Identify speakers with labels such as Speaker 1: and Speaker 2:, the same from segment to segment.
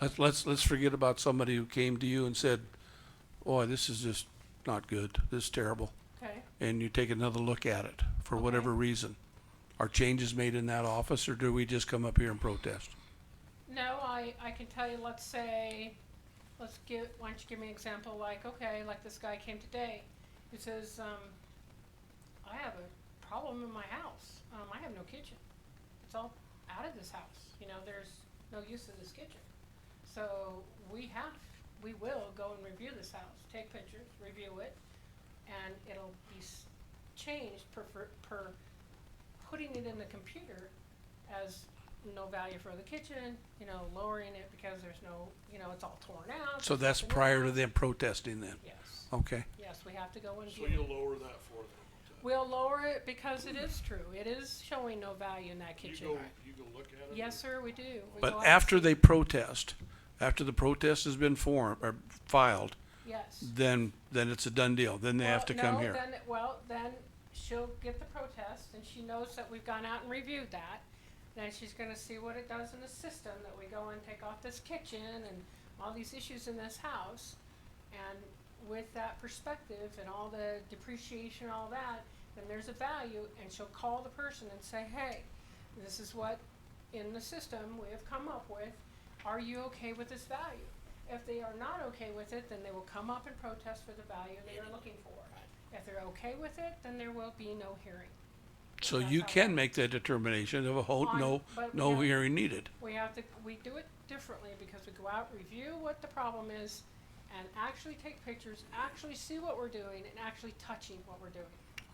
Speaker 1: Let's, let's, let's forget about somebody who came to you and said, "Boy, this is just not good. This is terrible."
Speaker 2: Okay,
Speaker 1: And you take another look at it for
Speaker 2: Okay.
Speaker 1: whatever reason. Are changes made in that office, or do we just come up here and protest?
Speaker 2: no, I, I can tell you, let's say, let's give, why don't you give me an example, like, okay, like this guy came today, who says, um, I have a problem in my house, um, I have no kitchen. It's all out of this house, you know, there's no use of this kitchen. So we have, we will go and review this house, take pictures, review it, and it'll be s- changed per, per, per putting it in the computer as no value for the kitchen, you know, lowering it because there's no, you know, it's all torn out.
Speaker 1: So that's prior to them protesting then?
Speaker 2: Yes,
Speaker 1: Okay.
Speaker 2: yes, we have to go and
Speaker 3: So
Speaker 2: view.
Speaker 3: you'll
Speaker 2: it.
Speaker 3: lower that for them.
Speaker 2: We'll lower it because it is true, it is showing no value in that
Speaker 3: You
Speaker 2: kitchen.
Speaker 3: go, you go look at it?
Speaker 2: Yes, sir, we do. We go
Speaker 1: But
Speaker 2: out-
Speaker 1: after they protest, after the protest has been formed, or filed,
Speaker 2: Yes.
Speaker 1: then, then it's a done deal. Then they have
Speaker 2: Well,
Speaker 1: to come
Speaker 2: no,
Speaker 1: here.
Speaker 2: then- Well, then she'll get the protest and she knows that we've gone out and reviewed that. Then she's gonna see what it does in the system, that we go and take off this kitchen and all these issues in this house. And with that perspective and all the depreciation, all that, then there's a value and she'll call the person and say, hey, this is what in the system we have come up with. Are you okay with this value? If they are not okay with it, then they will come up and protest for the value they are looking for. If they're okay with it, then there will be no hearing.
Speaker 1: So
Speaker 2: that's
Speaker 1: you
Speaker 2: how it
Speaker 1: can make that determination of a whole,
Speaker 2: On-
Speaker 1: no,
Speaker 2: but we
Speaker 1: no
Speaker 2: have-
Speaker 1: hearing needed.
Speaker 2: We have to, we do it differently because we go out, review what the problem is, and actually take pictures, actually see what we're doing, and actually touching what we're doing.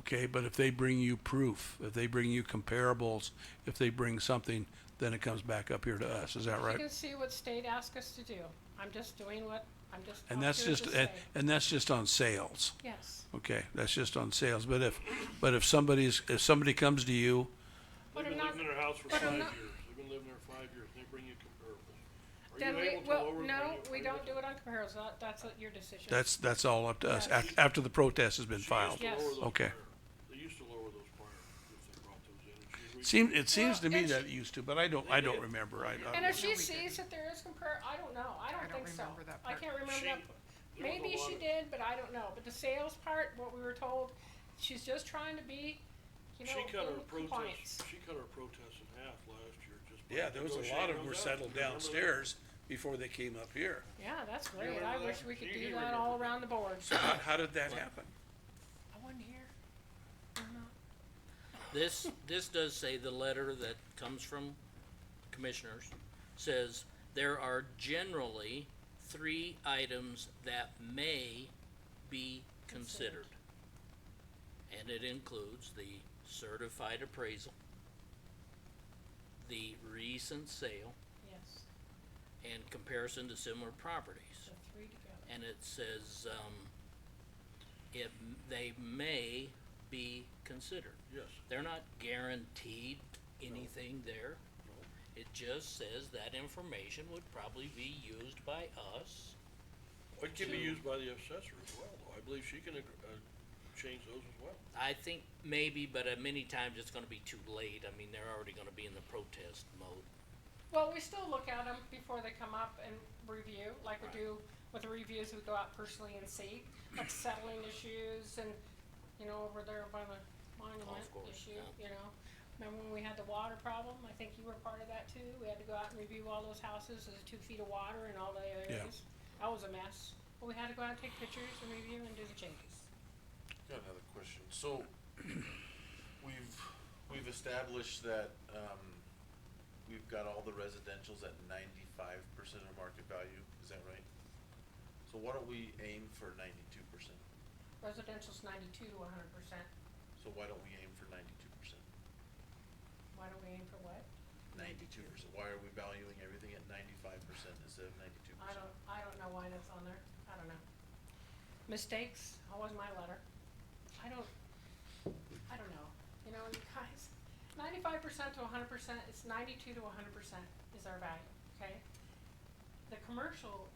Speaker 1: Okay, but if they bring you proof, if they bring you comparables, if they bring something, then it comes back up here to us, is that
Speaker 2: You
Speaker 1: right?
Speaker 2: can see what state asked us to do. I'm just doing what, I'm just.
Speaker 1: And
Speaker 2: up
Speaker 1: that's
Speaker 2: here
Speaker 1: just,
Speaker 2: to
Speaker 1: and,
Speaker 2: say.
Speaker 1: and that's just on sales,
Speaker 2: Yes.
Speaker 1: okay, that's just on sales, but if, but if somebody's, if somebody comes to you,
Speaker 2: But
Speaker 3: They've
Speaker 2: I'm
Speaker 3: been
Speaker 2: not,
Speaker 3: living in their house for
Speaker 2: but I'm
Speaker 3: five years,
Speaker 2: not-
Speaker 3: they've been living there five years, and they bring you comparables.
Speaker 2: then
Speaker 3: Are you
Speaker 2: we,
Speaker 3: able to
Speaker 2: well,
Speaker 3: lower?
Speaker 2: no, we don't do it on comparisons. That, that's uh, your decision.
Speaker 1: that's, that's all up to us,
Speaker 2: Yes.
Speaker 1: after, after the protest has been filed.
Speaker 2: Yes.
Speaker 1: Okay.
Speaker 3: They used to lower those prior, if they brought those in. and she re-
Speaker 1: Seem, it seems to
Speaker 2: Well,
Speaker 1: me
Speaker 2: and
Speaker 1: that it
Speaker 2: she-
Speaker 1: used to, but I don't, I don't remember, I,
Speaker 2: And
Speaker 1: I,
Speaker 2: if she sees that there is compar, I don't know, I don't
Speaker 4: don't
Speaker 2: think so.
Speaker 4: remember that
Speaker 2: I
Speaker 4: part.
Speaker 2: can't remember
Speaker 3: She-
Speaker 2: that.
Speaker 3: there was a
Speaker 2: Maybe
Speaker 3: lot
Speaker 2: she
Speaker 3: of-
Speaker 2: did, but I don't know. But the sales part, what we were told, she's just trying to be, you know,
Speaker 3: She cut her
Speaker 2: in compliance.
Speaker 3: protests, she cut her protests in half last year just by.
Speaker 1: yeah, there was a lot of
Speaker 3: negotiating
Speaker 1: them were
Speaker 3: those out.
Speaker 1: settled
Speaker 3: You remember that?
Speaker 1: downstairs before they came up here.
Speaker 2: Yeah, that's great.
Speaker 3: remember
Speaker 2: I
Speaker 3: that?
Speaker 2: wish we could
Speaker 3: You-
Speaker 2: do
Speaker 3: you
Speaker 2: that
Speaker 3: remember
Speaker 2: all
Speaker 3: that.
Speaker 2: around the board.
Speaker 1: So how, how did that happen?
Speaker 2: I wasn't here.
Speaker 5: This, this does say the letter that comes from commissioners says there are generally three items that may be considered. And it includes the certified appraisal, the recent sale,
Speaker 2: Yes,
Speaker 5: and comparison to similar properties.
Speaker 2: the three together.
Speaker 5: And it says, um, it, they may be considered.
Speaker 3: Yes,
Speaker 5: They're not guaranteed anything there. It just says that information would probably be used by us.
Speaker 3: it can be
Speaker 5: To-
Speaker 3: used by the assessor as well, though, I believe she can, ag- uh, change those as well.
Speaker 5: I think maybe, but uh, many times it's gonna be too late. I mean, they're already gonna be in the protest mode.
Speaker 2: Well, we still look at them before they come up and review, like we do with the reviews, we go out personally and see, like settling issues and, you know, over there by the monument
Speaker 5: Golf Oh, course,
Speaker 2: issue, you
Speaker 5: yeah.
Speaker 2: know? Remember when we had the water problem? I think you were part of that too. We had to go out and review all those houses, there's two feet of water in all the
Speaker 1: Yeah.
Speaker 2: areas. That was a mess. But we had to go out and take pictures and review and do the changes.
Speaker 6: Got another question. So, we've, we've established that, um, we've got all the residential's at ninety-five percent of market value, is that right? So why don't we aim for ninety-two percent?
Speaker 2: Residential's ninety-two to hundred percent.
Speaker 6: So why don't we aim for ninety-two percent?
Speaker 2: Why do we aim for what?
Speaker 6: Ninety-two percent, why are we valuing everything at ninety-five percent instead of ninety-two
Speaker 2: I
Speaker 6: percent?
Speaker 2: don't, I don't know why that's on there, I don't know. Mistakes, how was my letter? I don't, I don't know, you know, you guys, ninety-five percent to hundred percent, it's ninety-two to hundred percent is our value, okay? The commercial,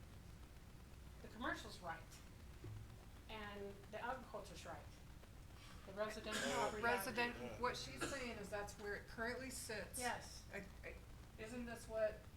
Speaker 2: the commercial's right, and the agriculture's right. The residential property value-
Speaker 4: Resident, what she's saying is that's where it currently sits.
Speaker 2: Yes,
Speaker 4: I- I- Isn't this what